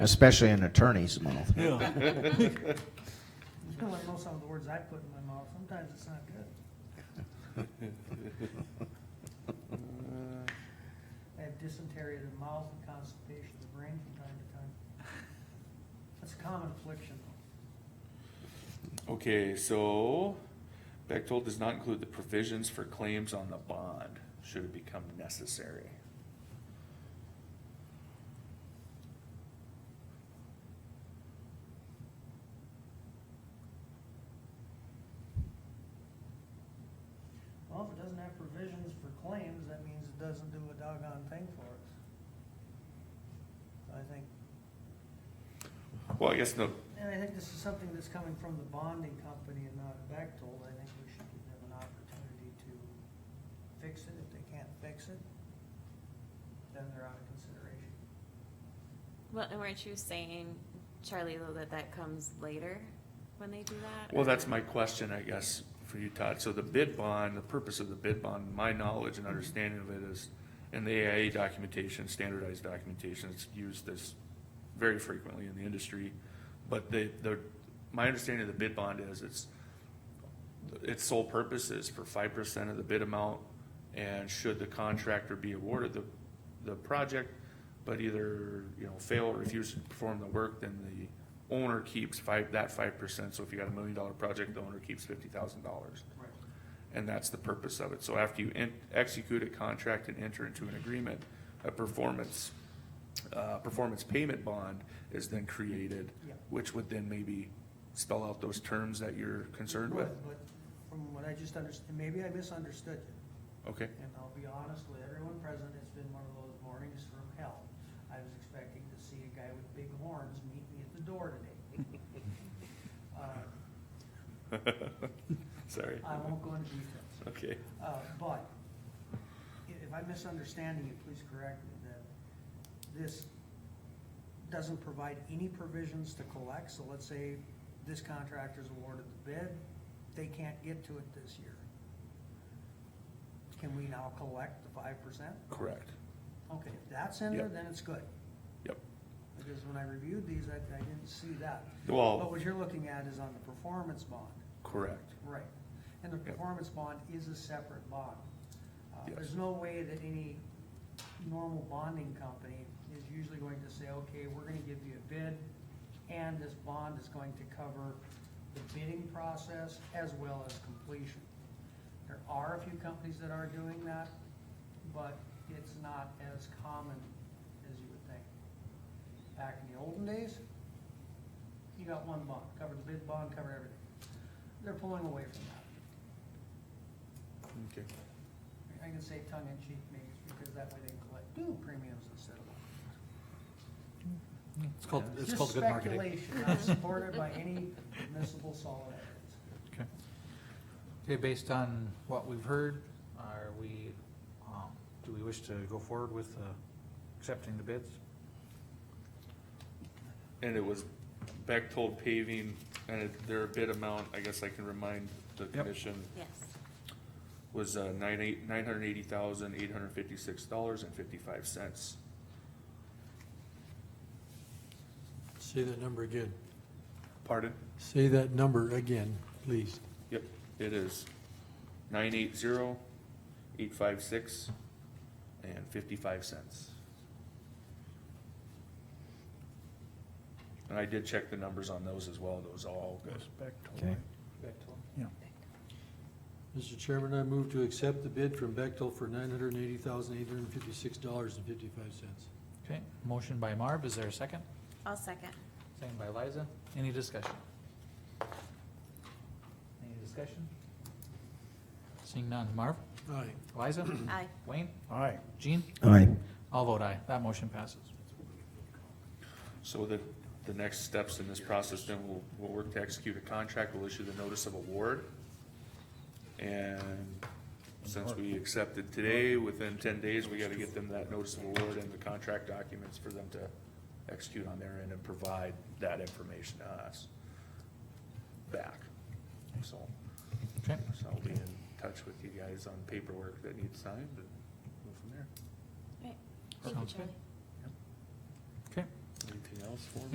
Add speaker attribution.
Speaker 1: especially an attorney's mouth.
Speaker 2: It's kind of like most of the words I put in my mouth, sometimes it's not good. I have dysentery of the mouth and constipation of the brain from time to time. That's a common affliction.
Speaker 3: Okay, so Bechtold does not include the provisions for claims on the bond, should it become necessary.
Speaker 2: Well, if it doesn't have provisions for claims, that means it doesn't do a doggone thing for us. I think,
Speaker 3: Well, I guess the,
Speaker 2: and I think this is something that's coming from the bonding company and not Bechtold. I think we should give them an opportunity to fix it. If they can't fix it, then they're out of consideration.
Speaker 4: Well, and weren't you saying, Charlie, though, that that comes later when they do that?
Speaker 3: well,
Speaker 4: or-
Speaker 3: that's my question, I guess, for you, Todd. So the bid bond, the purpose of the bid bond, my knowledge and understanding of it is, in the AIA documentation, standardized documentation, it's used this very frequently in the industry. But the, the, my understanding of the bid bond is it's, its sole purpose is for five percent of the bid amount, and should the contractor be awarded the, the project, but either, you know, fail or refuse to perform the work, then the owner keeps five, that five percent, so if you got a million dollar project, the owner keeps fifty thousand dollars.
Speaker 2: Right.
Speaker 3: And that's the purpose of it, so after you en- execute a contract and enter into an agreement, a performance, uh, performance payment bond is then created,
Speaker 2: Yeah.
Speaker 3: which would then maybe spell out those terms that you're concerned with,
Speaker 2: But from what I just understood, maybe I misunderstood you,
Speaker 3: okay?
Speaker 2: and I'll be honest with everyone present, it's been one of those mornings from hell. I was expecting to see a guy with big horns meet me at the door today. Uh,
Speaker 3: Sorry.
Speaker 2: I won't go into details,
Speaker 3: Okay.
Speaker 2: uh, but i- if I'm misunderstanding you, please correct me, that this doesn't provide any provisions to collect, so let's say this contractor's awarded the bid, they can't get to it this year. Can we now collect the five percent?
Speaker 3: Correct.
Speaker 2: Okay, if that's in there,
Speaker 3: Yep.
Speaker 2: then it's good,
Speaker 3: Yep.
Speaker 2: because when I reviewed these, I, I didn't see that. But
Speaker 3: Well,
Speaker 2: what you're looking at is on the performance bond.
Speaker 3: Oh. correct.
Speaker 2: Right, and the
Speaker 3: Yep.
Speaker 2: performance bond is a separate bond. Uh,
Speaker 3: Yes.
Speaker 2: There's no way that any normal bonding company is usually going to say, okay, we're gonna give you a bid, and this bond is going to cover the bidding process as well as completion. There are a few companies that are doing that, but it's not as common as you would think. Back in the olden days, you got one bond, covered the bid bond, covered everything. They're pulling away from that.
Speaker 3: Okay.
Speaker 2: I can say tongue in cheek maybe, it's because that way they can collect two premiums instead of one.
Speaker 5: It's called, it's
Speaker 2: Just
Speaker 5: called good marketing.
Speaker 2: speculation, not supported by any admissible solid evidence.
Speaker 5: Okay, Okay. based on what we've heard, are we, um, do we wish to go forward with, uh, accepting the bids?
Speaker 3: And it was Bechtold paving, and it- their bid amount, I guess I can remind the
Speaker 5: Yep.
Speaker 3: commission,
Speaker 4: Yes,
Speaker 3: was uh, nine eight, nine hundred eighty thousand, eight hundred fifty-six dollars and fifty-five cents.
Speaker 6: Say that number again.
Speaker 3: Pardon?
Speaker 6: Say that number again, please.
Speaker 3: Yep, it is nine eight zero, eight five six, and fifty-five cents. And I did check the numbers on those as well, those are all good.
Speaker 5: Okay. Yeah.
Speaker 6: Mr. Chairman, I move to accept the bid from Bechtel for nine hundred and eighty thousand, eight hundred and fifty-six dollars and fifty-five cents.
Speaker 5: Okay, motion by Marv, is there a second?
Speaker 4: I'll second.
Speaker 5: Second by Liza, any discussion? Any discussion? Seeing none, Marv,
Speaker 6: Aye.
Speaker 5: Liza,
Speaker 4: Aye.
Speaker 5: Wayne? Aye. Gene?
Speaker 1: Aye.
Speaker 5: I'll vote aye, that motion passes.
Speaker 3: So the, the next steps in this process, then we'll, we'll work to execute a contract, we'll issue the notice of award. And since we accepted today, within ten days, we gotta get them that notice of award and the contract documents for them to execute on their end and provide that information to us back. So,
Speaker 5: Okay,
Speaker 3: so I'll be in touch with you guys on paperwork that needs signed, but go from there.
Speaker 4: Right. Thank you,
Speaker 5: Sounds
Speaker 4: Charlie.
Speaker 5: okay,
Speaker 3: Anything
Speaker 7: else for me?